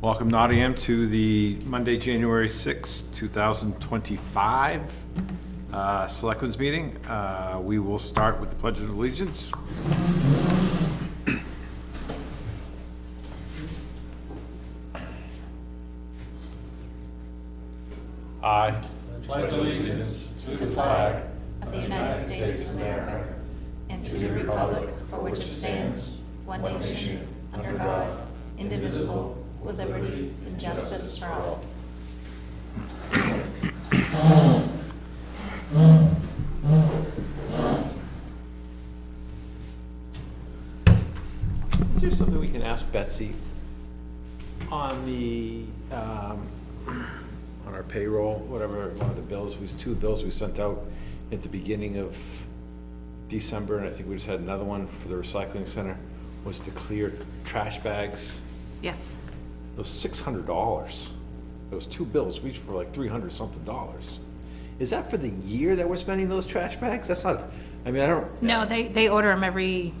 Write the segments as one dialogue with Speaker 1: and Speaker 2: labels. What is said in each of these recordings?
Speaker 1: Welcome Nottingham to the Monday, January 6, 2025 uh, Selectmen's Meeting. Uh, We will start with the Pledge of Allegiance. I
Speaker 2: of the United States of America and to the republic for which it stands, one nation, under God, indivisible, with liberty and justice for all.
Speaker 3: Is there something we can ask Betsy on the, um,
Speaker 1: on our payroll, whatever, one of the bills, we, two bills we sent out at the beginning of December, and I think we just had another one for the recycling center, was to clear trash bags.
Speaker 4: Yes.
Speaker 1: It was six hundred dollars. Those two bills, each for like three hundred something dollars. Is that for the year that we're spending those trash bags? That's not, I mean, I don't,
Speaker 4: No, they, they order them every,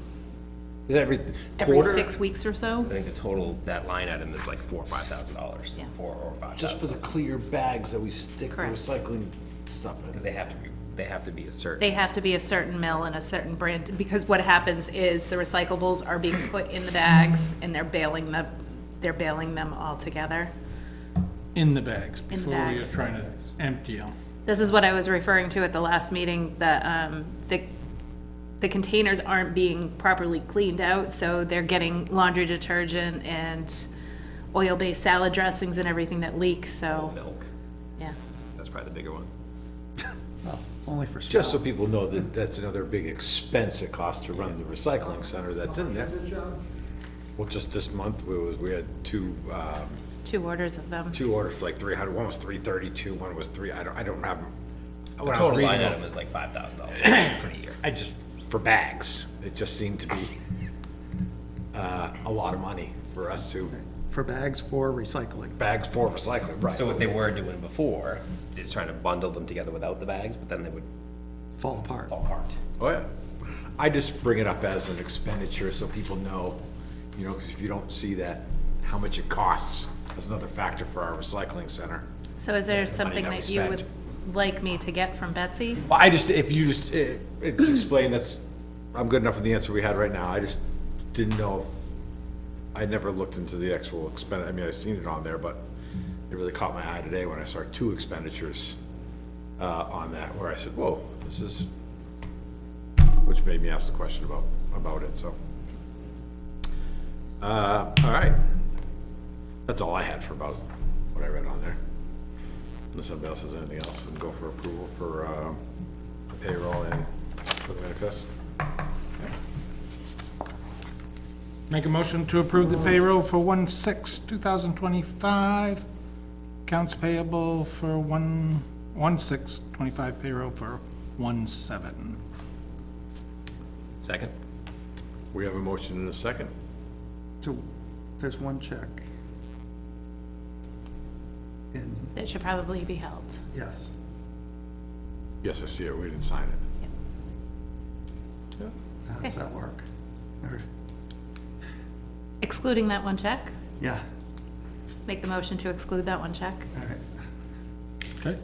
Speaker 1: is that every quarter?
Speaker 4: every six weeks or so.
Speaker 5: I think the total, that line item is like four, or five thousand dollars,
Speaker 4: Yeah.
Speaker 5: four or five
Speaker 1: Just for
Speaker 5: thousand.
Speaker 1: the clear bags that we stick the
Speaker 4: Correct.
Speaker 1: recycling stuff
Speaker 5: Because
Speaker 1: in.
Speaker 5: they have to be, they have to be a certain.
Speaker 4: They have to be a certain mill and a certain brand, because what happens is the recyclables are being put in the bags and they're baling the, they're baling them all together.
Speaker 6: in the bags
Speaker 4: In the
Speaker 6: before we are
Speaker 4: bags.
Speaker 6: trying to empty them.
Speaker 4: This is what I was referring to at the last meeting, that, um, the, the containers aren't being properly cleaned out, so they're getting laundry detergent and oil-based salad dressings and everything that leaks, so,
Speaker 5: Milk,
Speaker 4: yeah.
Speaker 5: that's probably the bigger one.
Speaker 6: Well, only for small.
Speaker 1: Just so people know that that's another big expense it costs to run the recycling center that's in there. Well, just this month, we was, we had two, um,
Speaker 4: Two orders of them.
Speaker 1: two orders for like three hundred. One was three thirty-two, one was three, I don't, I don't have. them.
Speaker 5: The
Speaker 1: When I was
Speaker 5: total
Speaker 1: reading
Speaker 5: line
Speaker 1: them-
Speaker 5: item is like five thousand dollars for the year.
Speaker 1: I just, for bags, it just seemed to be uh, a lot of money for us to,
Speaker 6: For bags for recycling.
Speaker 1: bags for recycling, right?
Speaker 5: So what they were doing before is trying to bundle them together without the bags, but then they would
Speaker 6: Fall apart.
Speaker 5: fall apart.
Speaker 1: Oh, yeah. I just bring it up as an expenditure so people know, you know, because if you don't see that, how much it costs, that's another factor for our recycling center.
Speaker 4: So is there something
Speaker 1: that we
Speaker 4: that you would
Speaker 1: spent.
Speaker 4: like me to get from Betsy?
Speaker 1: Well, I just, if you just eh, eh, explain, that's, I'm good enough with the answer we had right now. I just didn't know if, I never looked into the actual expend, I mean, I've seen it on there, but it really caught my eye today when I saw two expenditures uh, on that, where I said, whoa, this is, which made me ask the question about, about it, so. Uh, all right. That's all I had for about what I read on there. Unless somebody else has anything else, we can go for approval for um, payroll and for the manifest.
Speaker 6: Make a motion to approve the payroll for one six, two thousand twenty-five. Accounts payable for one, one six, twenty-five payroll for one seven.
Speaker 5: Second?
Speaker 1: We have a motion and a second.
Speaker 7: So, there's one check. And,
Speaker 4: That should probably be held.
Speaker 7: yes,
Speaker 1: Yes, I see it, we didn't sign it.
Speaker 7: how does that work? Or-
Speaker 4: Excluding that one check?
Speaker 7: Yeah,
Speaker 4: Make the motion to exclude that one check?
Speaker 7: all right.
Speaker 6: Okay.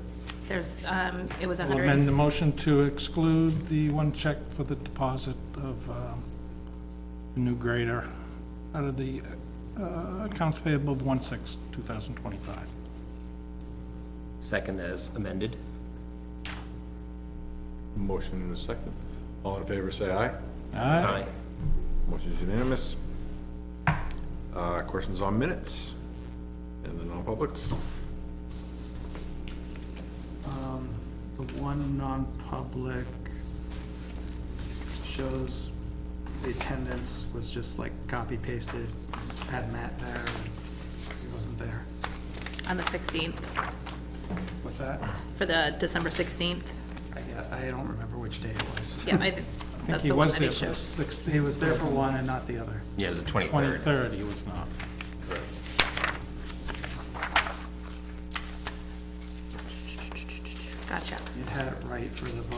Speaker 4: There's, um, it was a
Speaker 6: We'll
Speaker 4: hundred.
Speaker 6: amend
Speaker 4: and-
Speaker 6: the motion to exclude the one check for the deposit of um, the new grader out of the uh, accounts payable of one six, two thousand twenty-five.
Speaker 5: Second as amended?
Speaker 1: Motion and a second. All in favor, say aye.
Speaker 6: Aye.
Speaker 1: Motion's unanimous. Uh, Questions on minutes and the non-publics?
Speaker 7: Um, The one non-public shows the attendance was just like copy pasted, had Matt there, and he wasn't there.
Speaker 4: On the sixteenth,
Speaker 7: What's that?
Speaker 4: for the December sixteenth.
Speaker 7: I, get- I don't remember which day it was.
Speaker 4: Yeah, I, th-
Speaker 6: I think
Speaker 4: that's
Speaker 6: he
Speaker 4: the one
Speaker 6: was
Speaker 4: that
Speaker 6: there
Speaker 4: it
Speaker 6: for
Speaker 4: shows.
Speaker 6: six,
Speaker 7: He was there for one and not the other.
Speaker 5: Yeah, it was the twenty-third.
Speaker 6: twenty-third, he was not.
Speaker 4: Gotcha.
Speaker 7: It had it right for the